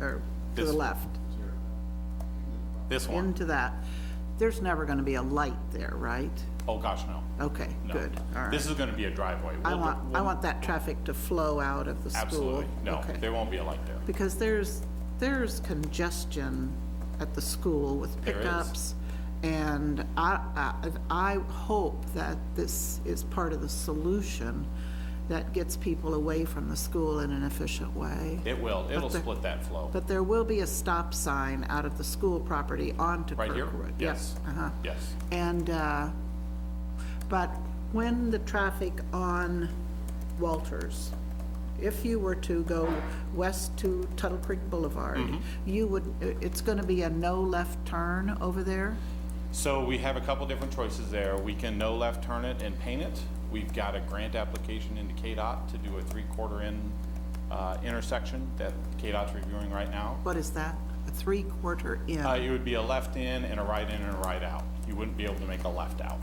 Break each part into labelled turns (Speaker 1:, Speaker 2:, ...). Speaker 1: or to the
Speaker 2: This-
Speaker 1: left,
Speaker 2: This one?
Speaker 1: into that, there's never gonna be a light there, right?
Speaker 2: Oh, gosh, no.
Speaker 1: Okay,
Speaker 2: No.
Speaker 1: good, all right.
Speaker 2: This is gonna be a driveway.
Speaker 1: I
Speaker 2: We'll-
Speaker 1: want, I
Speaker 2: we'll-
Speaker 1: want that traffic to flow out of the school.
Speaker 2: Absolutely. No,
Speaker 1: Okay.
Speaker 2: there won't be a light there.
Speaker 1: Because there's, there's congestion at the school with
Speaker 2: There is.
Speaker 1: pickups. And I, I, I hope that this is part of the solution that gets people away from the school in an efficient way.
Speaker 2: It will. It'll
Speaker 1: the-
Speaker 2: split that flow.
Speaker 1: But there will be a stop sign out of the school property onto
Speaker 2: Right here?
Speaker 1: Kirkwood. Yep,
Speaker 2: Yes.
Speaker 1: Uh-huh.
Speaker 2: Yes.
Speaker 1: And, uh, but when the traffic on Walters, if you were to go west to Tuttle Creek Boulevard,
Speaker 2: Mm-hmm.
Speaker 1: you would, it's going to be a no left turn over there?
Speaker 2: So we have a couple different choices there. We can no left turn it and paint it. We've got a grant application into KDOT to do a three-quarter in uh, intersection that KDOT's reviewing right now.
Speaker 1: What is that? A three-quarter
Speaker 2: Uh,
Speaker 1: in?
Speaker 2: It would be a left in and a right in and a right out. You wouldn't be able to make a left out.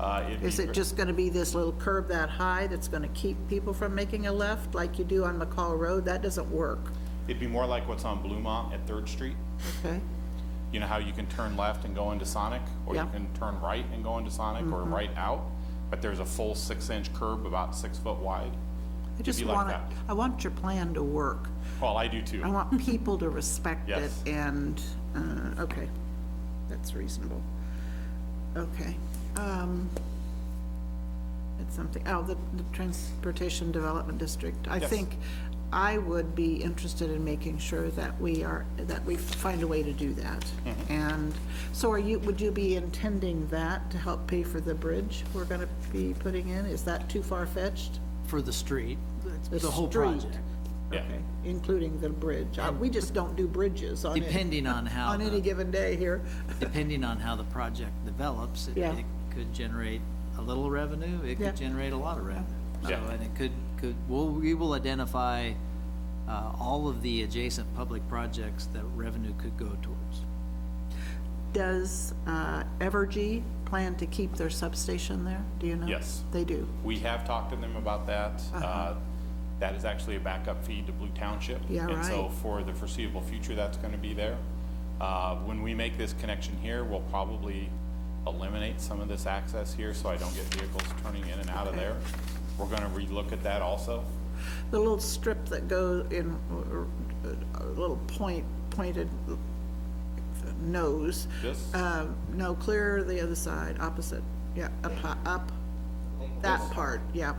Speaker 2: Uh, it'd be
Speaker 1: Is
Speaker 2: ver-
Speaker 1: it just going to be this little curb that high that's going to keep people from making a left like you do on McCall Road? That doesn't work,
Speaker 2: It'd be more like what's on Bluemont at Third Street.
Speaker 1: okay?
Speaker 2: You know how you can turn left and go into Sonic? Or you
Speaker 1: Yeah. Mm-hmm.
Speaker 2: can turn right and go into Sonic or right out? But there's a full six-inch curb about six foot wide.
Speaker 1: I
Speaker 2: It'd
Speaker 1: just
Speaker 2: be like
Speaker 1: want,
Speaker 2: that.
Speaker 1: I want your plan to work.
Speaker 2: Well, I do too.
Speaker 1: I want people to respect it
Speaker 2: Yes.
Speaker 1: and, uh, okay, that's reasonable. Okay. um, It's something, oh, the the Transportation Development District. I
Speaker 2: Yes.
Speaker 1: think I would be interested in making sure that we are, that we find a way to do that.
Speaker 2: Mm-hmm.
Speaker 1: And so are you, would you be intending that to help pay for the bridge we're going to be putting in? Is that too far-fetched?
Speaker 3: for the street,
Speaker 1: The
Speaker 3: the whole
Speaker 1: street.
Speaker 3: project.
Speaker 2: Yeah.
Speaker 1: Okay, including the bridge. Uh, We just don't do bridges on any-
Speaker 3: Depending on how
Speaker 1: On any
Speaker 3: the-
Speaker 1: given day here.
Speaker 3: Depending on how the project develops, it
Speaker 1: Yeah.
Speaker 3: it could generate a little revenue, it
Speaker 1: Yeah.
Speaker 3: could generate a lot of revenue. So,
Speaker 2: Yeah.
Speaker 3: and it could, could, well, we will identify uh, all of the adjacent public projects that revenue could go towards.
Speaker 1: Does uh, Evergy plan to keep their substation there? Do you know?
Speaker 2: Yes.
Speaker 1: They do.
Speaker 2: We have talked to them about that.
Speaker 1: Uh-huh.
Speaker 2: Uh, That is actually a backup feed to Blue Township.
Speaker 1: Yeah,
Speaker 2: And so
Speaker 1: right.
Speaker 2: for the foreseeable future, that's going to be there. Uh, When we make this connection here, we'll probably eliminate some of this access here so I don't get vehicles turning in and out of there. We're going to relook at that also.
Speaker 1: The little strip that goes in, or, uh, a little point, pointed nose.
Speaker 2: This?
Speaker 1: Uh, No, clear the other side, opposite, yeah, up, hi- up, that part, yeah,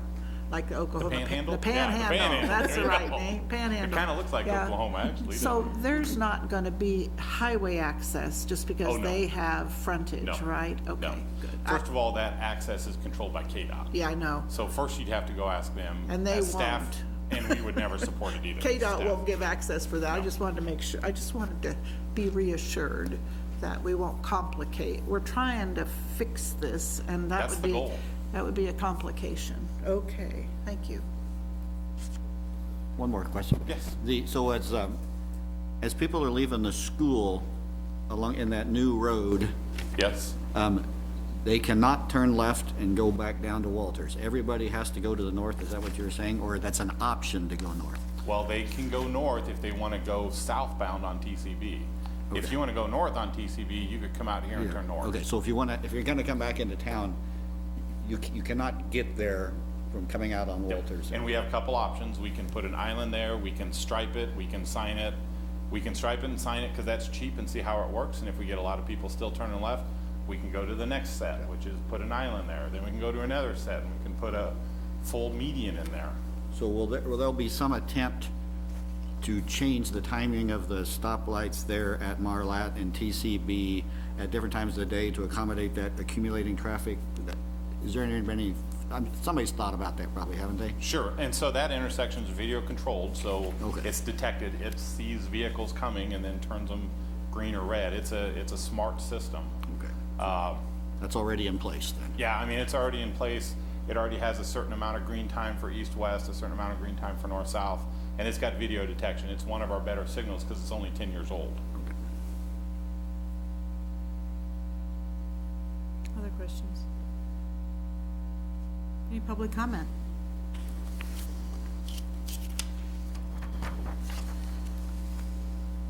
Speaker 1: like Oklahoma. pan-
Speaker 2: panhandle?
Speaker 1: The
Speaker 2: Yeah, the
Speaker 1: panhandle,
Speaker 2: panhandle.
Speaker 1: that's the
Speaker 2: There you
Speaker 1: right
Speaker 2: go.
Speaker 1: name, panhandle.
Speaker 2: It kinda looks like
Speaker 1: yeah.
Speaker 2: Oklahoma, actually, doesn't
Speaker 1: So there's not gonna be highway access just because
Speaker 2: Oh, no.
Speaker 1: they have frontage,
Speaker 2: No.
Speaker 1: right?
Speaker 2: No.
Speaker 1: Okay, good. I-
Speaker 2: First of all, that access is controlled by KDOT.
Speaker 1: Yeah, I know.
Speaker 2: So first you'd have to go ask them.
Speaker 1: And they
Speaker 2: as staff,
Speaker 1: won't.
Speaker 2: And we would never support it either. as
Speaker 1: KDOT
Speaker 2: staff.
Speaker 1: won't give access for that, I just wanted to make sure, I just wanted to be reassured that we won't complicate. We're trying to fix this, and that
Speaker 2: That's
Speaker 1: would
Speaker 2: the
Speaker 1: be.
Speaker 2: goal.
Speaker 1: That would be a complication. Okay, thank you.
Speaker 4: One more question.
Speaker 2: Yes.
Speaker 4: The, so as, um, as people are leaving the school along, in that new road,
Speaker 2: Yes.
Speaker 4: um, they cannot turn left and go back down to Walters. Everybody has to go to the north, is that what you were saying? Or that's an option to go north?
Speaker 2: Well, they can go north if they want to go southbound on TCB. If you want to go north on TCB, you could come out here and turn north.
Speaker 4: Okay, so if you wanna, if you're gonna come back into town, you, c- you cannot get there from coming out on Walters.
Speaker 2: And we have a couple options. We can put an island there, we can stripe it, we can sign it. We can stripe it and sign it because that's cheap and see how it works. And if we get a lot of people still turning left, we can go to the next set, which is put an island there. Then we can go to another set and we can put a full median in there.
Speaker 4: So will there, will there be some attempt to change the timing of the stoplights there at Marlat and TCB at different times of the day to accommodate that accumulating traffic? Is there any, any, um, somebody's thought about that probably, haven't they?
Speaker 2: Sure, and so that intersection is video controlled, so
Speaker 4: Okay.
Speaker 2: it's detected, it sees vehicles coming and then turns them green or red. It's a, it's a smart system.
Speaker 4: Okay. That's already in place then?
Speaker 2: Yeah, I mean, it's already in place, it already has a certain amount of green time for east-west, a certain amount of green time for north-south, and it's got video detection. It's one of our better signals because it's only ten years old.
Speaker 5: Other questions? Any public comment?